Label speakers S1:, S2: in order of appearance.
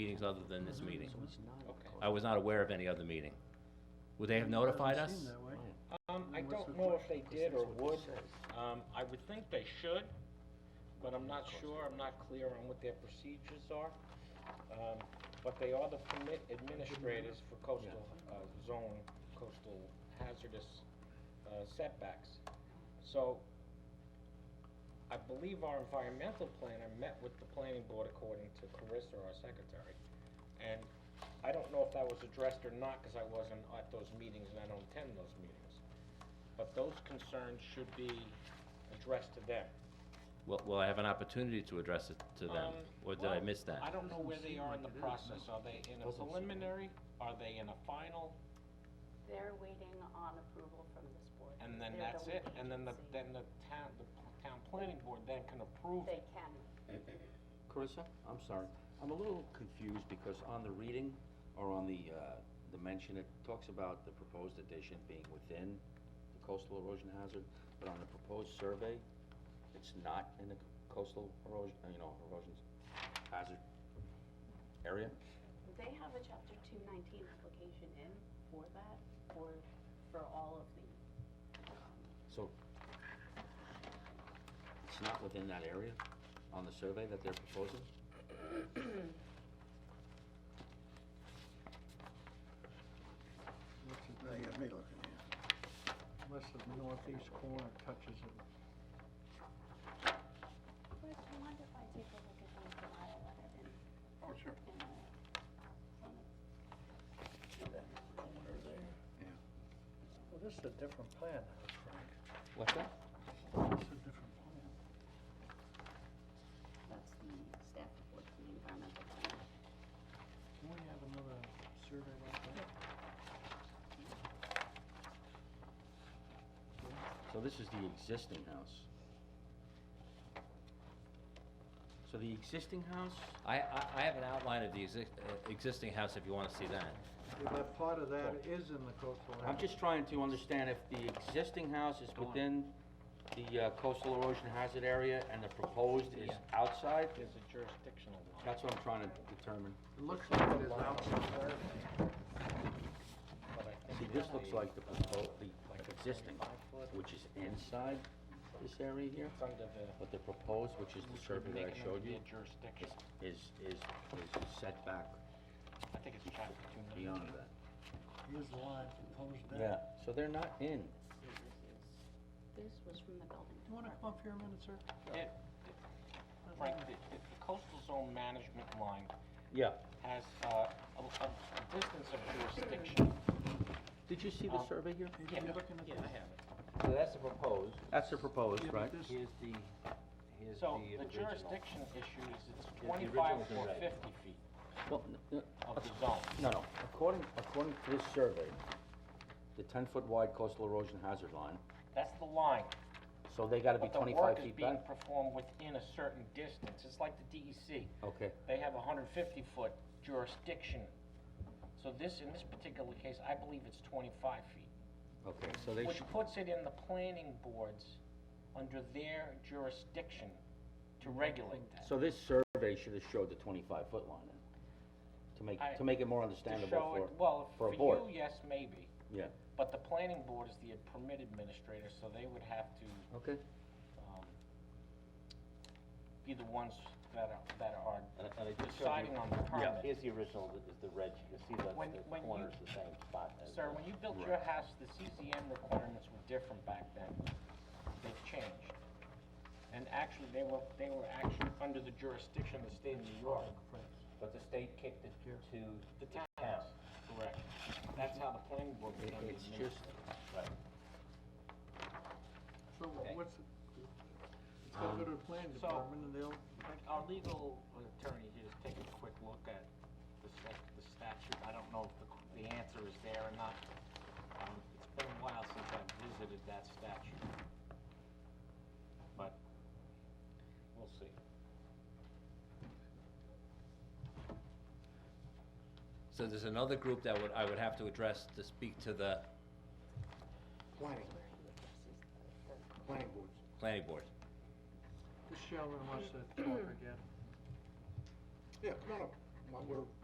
S1: meetings other than this meeting.
S2: Okay.
S1: I was not aware of any other meeting. Would they have notified us?
S2: Um, I don't know if they did or would. Um, I would think they should, but I'm not sure, I'm not clear on what their procedures are. Um, but they are the permit administrators for coastal, uh, zone, coastal hazardous, uh, setbacks. So, I believe our environmental planner met with the planning board according to Carissa, our secretary. And I don't know if that was addressed or not, cause I wasn't at those meetings and I don't attend those meetings. But those concerns should be addressed to them.
S1: Will, will I have an opportunity to address it to them?
S2: Um,
S1: Or did I
S2: well,
S1: miss
S2: I
S1: that?
S2: don't know where they are in the process. Are they in a
S3: Doesn't seem-
S2: preliminary? Are they in a final?
S4: They're waiting on approval from this board.
S2: And then
S4: They're
S2: that's
S4: the
S2: it?
S4: lead
S2: And then the,
S4: agency.
S2: then the town, the town planning board then can approve
S4: They
S2: it.
S4: can.
S3: Carissa, I'm sorry, I'm a little confused because on the reading, or on the, uh, the mention, it talks about the proposed addition being within the coastal erosion hazard, but on the proposed survey, it's not in the coastal erosion, you know, erosion hazard area?
S4: They have a chapter two nineteen application in for that, for, for all of the,
S3: So, it's not within that area on the survey that they're proposing?
S5: Now you got me looking here.
S6: Unless the northeast corner touches it.
S4: Chris, do you mind if I take a look at those that I let it in?
S5: Oh, sure.
S4: in a- on a-
S6: Well, this is a different plan now, Frank.
S3: What's that?
S6: This is a different plan.
S4: That's the staff report from the environmental plan.
S6: Can we have another survey like that?
S3: So this is the existing house. So the existing house,
S1: I, I, I have an outline of the exi- uh, existing house if you wanna see that.
S6: Yeah, But part of that is in the coastal
S3: I'm
S6: area.
S3: just trying to understand if the existing house is within the uh, coastal erosion hazard area and the proposed is
S2: Yeah.
S3: outside?
S2: There's a jurisdictional line.
S3: That's what I'm trying to determine.
S6: It looks like it is outside.
S2: but I think
S3: See, this looks like the proposed, the existing, which is inside this area here,
S2: It's under the.
S3: but the proposed, which is the survey that
S2: making
S3: I
S2: it
S3: showed
S2: be
S3: you,
S2: a Jurisdiction.
S3: is, is, is set back
S2: I think it's chapter two nineteen.
S3: beyond that.
S6: Here's the line proposed down.
S3: Yeah, so they're not in.
S4: This was from the building.
S6: You wanna come up here a minute, sir?
S2: It, right, the, the coastal zone management line
S3: Yeah.
S2: has, uh, a, a a distance of jurisdiction.
S3: Did you see
S2: the
S3: survey here?
S6: If
S2: Yeah,
S6: you're looking at
S2: yeah,
S6: this.
S2: I have it.
S3: Uh, So that's the proposed. That's the proposed,
S6: Yeah, but
S3: right?
S6: this-
S1: the, here's
S2: So the jurisdiction issue is it's
S3: the
S2: twenty-five
S3: original's
S2: or
S3: already.
S2: fifty feet
S3: Well, n-
S2: of the zone.
S3: No, no, according, according to this survey, the ten-foot wide coastal erosion hazard line,
S2: That's the line.
S3: so they gotta be
S2: But the work
S3: twenty-five
S2: is
S3: feet
S2: being
S3: back?
S2: performed within a certain distance. It's like the DEC.
S3: Okay,
S2: They have a hundred fifty foot jurisdiction. So this, in this particular case, I believe it's twenty-five feet,
S3: okay, so they
S2: which
S3: should,
S2: puts it in the planning boards under their jurisdiction to regulate that.
S3: so this survey should have showed the twenty-five foot line then, to
S2: I-
S3: make, to make it more
S2: To
S3: understandable
S2: show
S3: for,
S2: it, well,
S3: for
S2: for
S3: a board.
S2: you, yes, maybe,
S3: Yeah,
S2: but the planning board is the permit administrator, so they would have to
S3: okay.
S2: um, be the ones that are, that
S7: And I- and I
S2: are
S7: just showed you-
S2: deciding on the permit.
S7: Here's the original, th- is the red, you can see that
S2: When-
S7: the
S2: when you-
S7: corner's the same spot as.
S2: Sir,
S7: the-
S2: when you built your house, the CZN requirements were different back then. They've changed. And actually, they were, they were actually under the jurisdiction of the state of New York.
S7: But the state kicked it to the
S2: The town,
S7: town.
S2: correct. That's how the planning board
S3: It-
S2: became the
S3: It's just,
S2: administrator.
S6: So what's, the- it's gotta go to the planning
S2: So-
S6: department and they'll,
S2: Our legal attorney here is taking a quick look at the stat- the statute. I don't know if the- the answer is there or not. Um, It's been a while since I've visited that statute. But we'll see.
S1: So there's another group that would, I would have to address to speak to the
S5: Planning, planning boards.
S1: planning board.
S6: just show them what's that talk again.
S5: Yeah, come on up.
S6: what we're